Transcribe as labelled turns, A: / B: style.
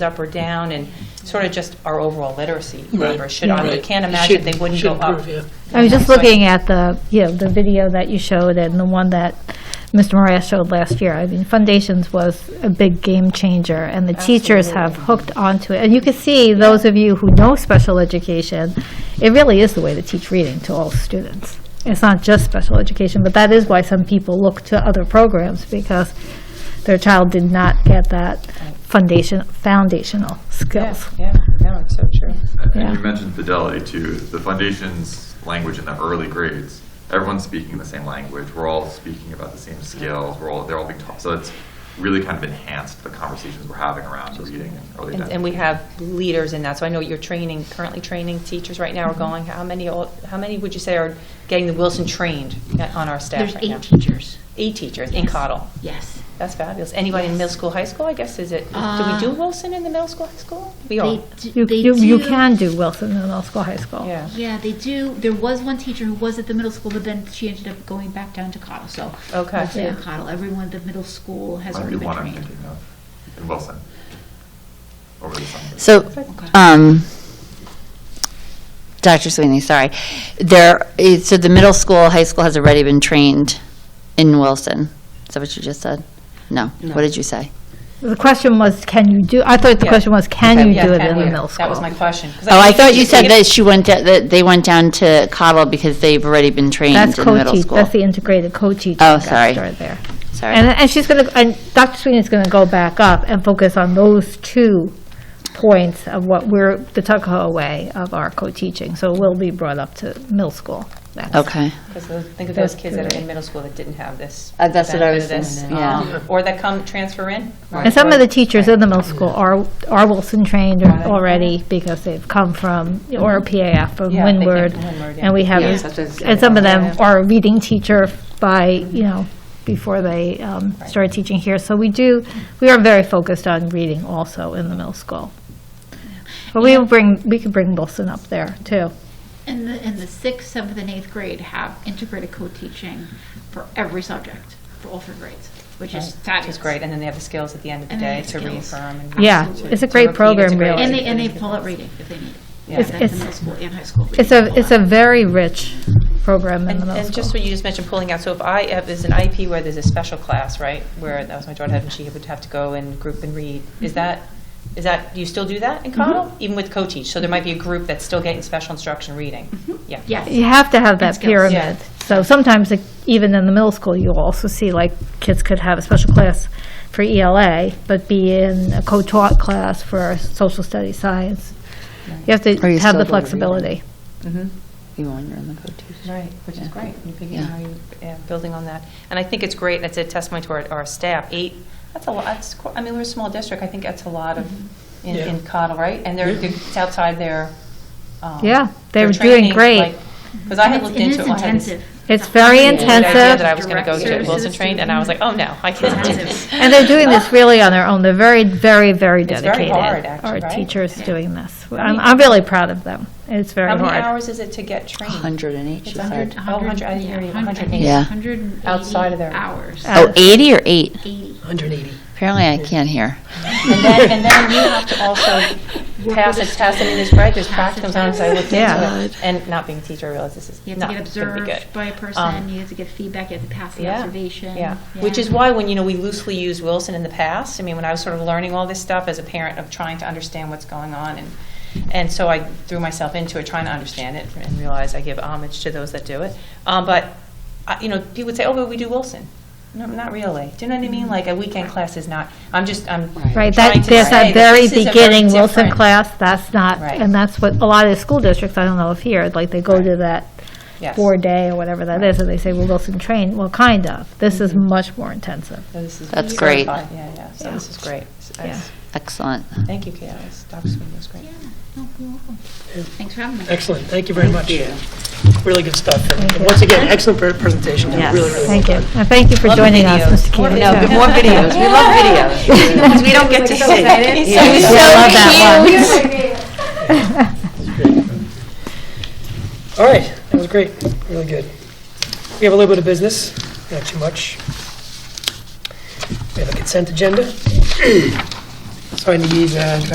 A: up or down, and sort of just our overall literacy
B: Right,
A: numbers should, I
B: right.
A: can't imagine they wouldn't go
B: Should
A: up.
B: improve, yeah.
C: I was just
A: Sorry.
C: looking at the, you know, the video that you showed and the one that Mr. Moran showed last year. I mean, Foundations was a big game changer, and the teachers have hooked onto it. And you can see, those of you who know special education, it really is the way to teach reading to all students. It's not just special education, but that is why some people look to other programs, because their child did not get that foundation, foundational skills.
A: Yeah, no, it's so true.
C: Yeah.
D: And you mentioned fidelity too. The foundation's language in the early grades, everyone's speaking the same language. We're all speaking about the same skills. We're all they're all being taught. So it's really kind of enhanced the conversations we're having around reading and early.
A: And, and we have leaders in that, so I know you're training, currently training teachers right
B: Mm-hmm.
A: now are going, how many, al- how many would you say are getting the Wilson trained on our staff
E: There's
A: right now?
E: eight teachers,
A: Eight teachers in
E: Yes.
A: Cottle.
E: yes.
A: That's fabulous. Anybody in
E: Yes.
A: middle school, high school, I guess, is it, do we
E: Uh,
A: do Wilson in the middle school, high school? We
E: They
A: all,
E: d-
C: You,
E: they
C: you you
E: do-
C: can do Wilson in middle school, high school.
A: yeah.
E: Yeah, they do. There was one teacher who was at the middle school, but then she ended up going back down to Cottle, so.
A: Okay.
E: mostly in
C: Yeah.
E: Cottle, everyone at the middle school has
D: Might
E: already
D: be
E: been
D: one I'm
E: trained.
D: thinking of in Wilson over the summer.
F: So,
A: Okay.
F: um, Dr. Sweeney, sorry. There, eh, so the middle school, high school has already been trained in Wilson. Is that what you just said? No.
E: No.
F: What did you say?
C: The question was, can you do, I thought the
A: Yeah.
C: question was, can you
A: Yeah,
C: do it
A: can
C: in the
A: we?
C: middle school?
A: That was my question. 'Cause
F: Oh, I
A: think
F: thought you said
A: if-
F: that she went, to- that they went down to Cottle because they've already been trained in
C: That's
F: the middle
C: co-teach,
F: school.
C: that's the integrated co-teaching.
F: Oh, sorry.
C: factor there. And,
F: Sorry.
C: and she's going to, and Dr. Sweeney's going to go back up and focus on those two points of what we're, the Tuckahoe way of our co-teaching. So it will be brought up to middle school. next.
F: Okay.
A: 'cause those- Think of those kids that are in middle school that didn't have this.
F: Uh, that's what I
A: benefit
F: was
A: of this,
F: thinking, yeah.
A: um, Or that come, transfer in.
C: And some of the teachers in the middle school are, are Wilson trained or- already because they've come from, or PAF from
A: Yeah, they came from
C: Windward.
A: Windward, yeah.
C: And we have,
A: Yeah, that's what I was
C: and some of
A: saying.
C: them are a reading teacher by, you know, before they um,
A: Right.
C: started teaching here. So we do, we are very focused on reading also in the middle school. But we will bring, we could bring Wilson up there too.
E: And the, and the sixth, seventh, and eighth grade have integrated co-teaching for every subject, for all three grades, which is
A: Which
E: fabulous.
A: is great, and then they have the skills at the end of the
E: And they
A: day
E: have
A: to
E: skills.
A: reaffirm. and
C: Yeah,
A: to-
C: it's a
A: to
C: great
A: repeat,
C: program,
A: it's a great-
C: really.
E: And they, and they pull out reading if they need it.
A: Yeah.
C: It's-
E: That's the
C: it's-
E: middle school and high school.
C: It's a, it's a very rich program in
A: And
C: the middle
A: and just
C: school.
A: what you just mentioned, pulling out, so if I, if there's an IP where there's a special class, right, where, that was my daughter had, and she would have to go and group and read, is that, is that, do you still do that in Cottle? Even with co-teach, so there might be a group that's still getting special instruction reading? Yeah.
E: Yes.
C: You have to have that
E: skills.
C: pyramid. So sometimes, like, even in the middle school, you'll also see, like, kids could have a special class for ELA, but be in a co-taught class for social studies science. You have to
F: Or you
C: have the
F: still do reading.
C: flexibility.
A: Mm-hmm.
F: You wander in the co-teach.
A: Right, which is great. You're picking
F: Yeah.
A: how you, yeah, building on that. And I think it's great, that's a testament to our, our staff. Eight, that's a lot, that's, qu- I mean, we're a small district, I think that's a lot of,
C: Mm-hmm.
A: in,
B: Yeah.
A: in Cottle, right? And they're, they're- it's outside their, um.
C: Yeah, they're doing great.
A: Because I had looked into it. I had this-
C: It's very
A: I had an idea
C: intensive.
A: That I was going to go get
E: Direct
A: Wilson
E: services
A: trained, and I was like, oh, no, I can't do
E: Intensive.
A: this.
C: And they're doing this really on their own. They're very, very, very
A: It's very
C: dedicated.
A: hard, actually,
C: Our
A: right?
C: teachers doing this. I'm, I'm really proud of them. It's very
A: How many
C: hard.
A: hours is it to get trained?
F: 100 in each,
A: It's
F: you said.
A: 100 Oh, 100, I didn't hear you, 180.
F: Yeah.
A: Outside of their-
E: Hours.
C: Uh,
F: Oh, 80 or 8?
E: 80.
B: 180.
F: Apparently I can't hear.
A: And then, and then you have to also pass a test, I mean, there's, right, there's
E: Pass a
A: practicums on, it, so I looked
C: Yeah.
A: into it. And not being a teacher, I realized this is
E: You
A: not
E: have to get
A: gonna be good.
E: observed by a
A: Um,
E: person, you have to get feedback, you have to pass the
A: Yeah,
E: observation.
A: Yeah, which is
E: Yeah.
A: why when, you know, we loosely used Wilson in the past, I mean, when I was sort of learning all this stuff as a parent of trying to understand what's going on, and, and so I threw myself into it, trying to understand it, and realize I give homage to those that do it. Um, but, I- you know, people would say, oh, but we do Wilson. No, not really. Do you know what I mean? Like, a weekend class is not, I'm just, I'm trying
C: Right, that,
A: to
C: there's
A: say
C: that very
A: this is a
C: beginning Wilson
A: different-
C: class, that's not,
A: Right.
C: and that's what, a lot of the school districts, I don't know if here, like, they go to that
A: Yes.
C: four-day or whatever that is, and they say, well, Wilson train, well, kind of. This is much more intensive.
A: So this Mm-hmm. is
F: That's great.
A: certified. Yeah, yeah, so this is great. So
C: Yeah.
A: that's-
F: Excellent.
A: Thank you, Kayla. This Dr. Sweeney was great.
E: Yeah, no, you're welcome. Thanks for having me.
B: Excellent, thank you very much. Really good stuff. And- and Once again, excellent pre- presentation, really, really well
C: Thank you,
B: done.
C: and thank you for
A: Love the
C: joining us,
A: videos.
C: Mr.
A: More
C: Keating.
A: videos. Good
C: too.
A: morning.
F: videos. We love videos. We don't get to see.
C: Yeah, I love that one.
B: All right, that was great, really good. We have a little bit of business, not too much. We have a consent agenda. So I need, uh,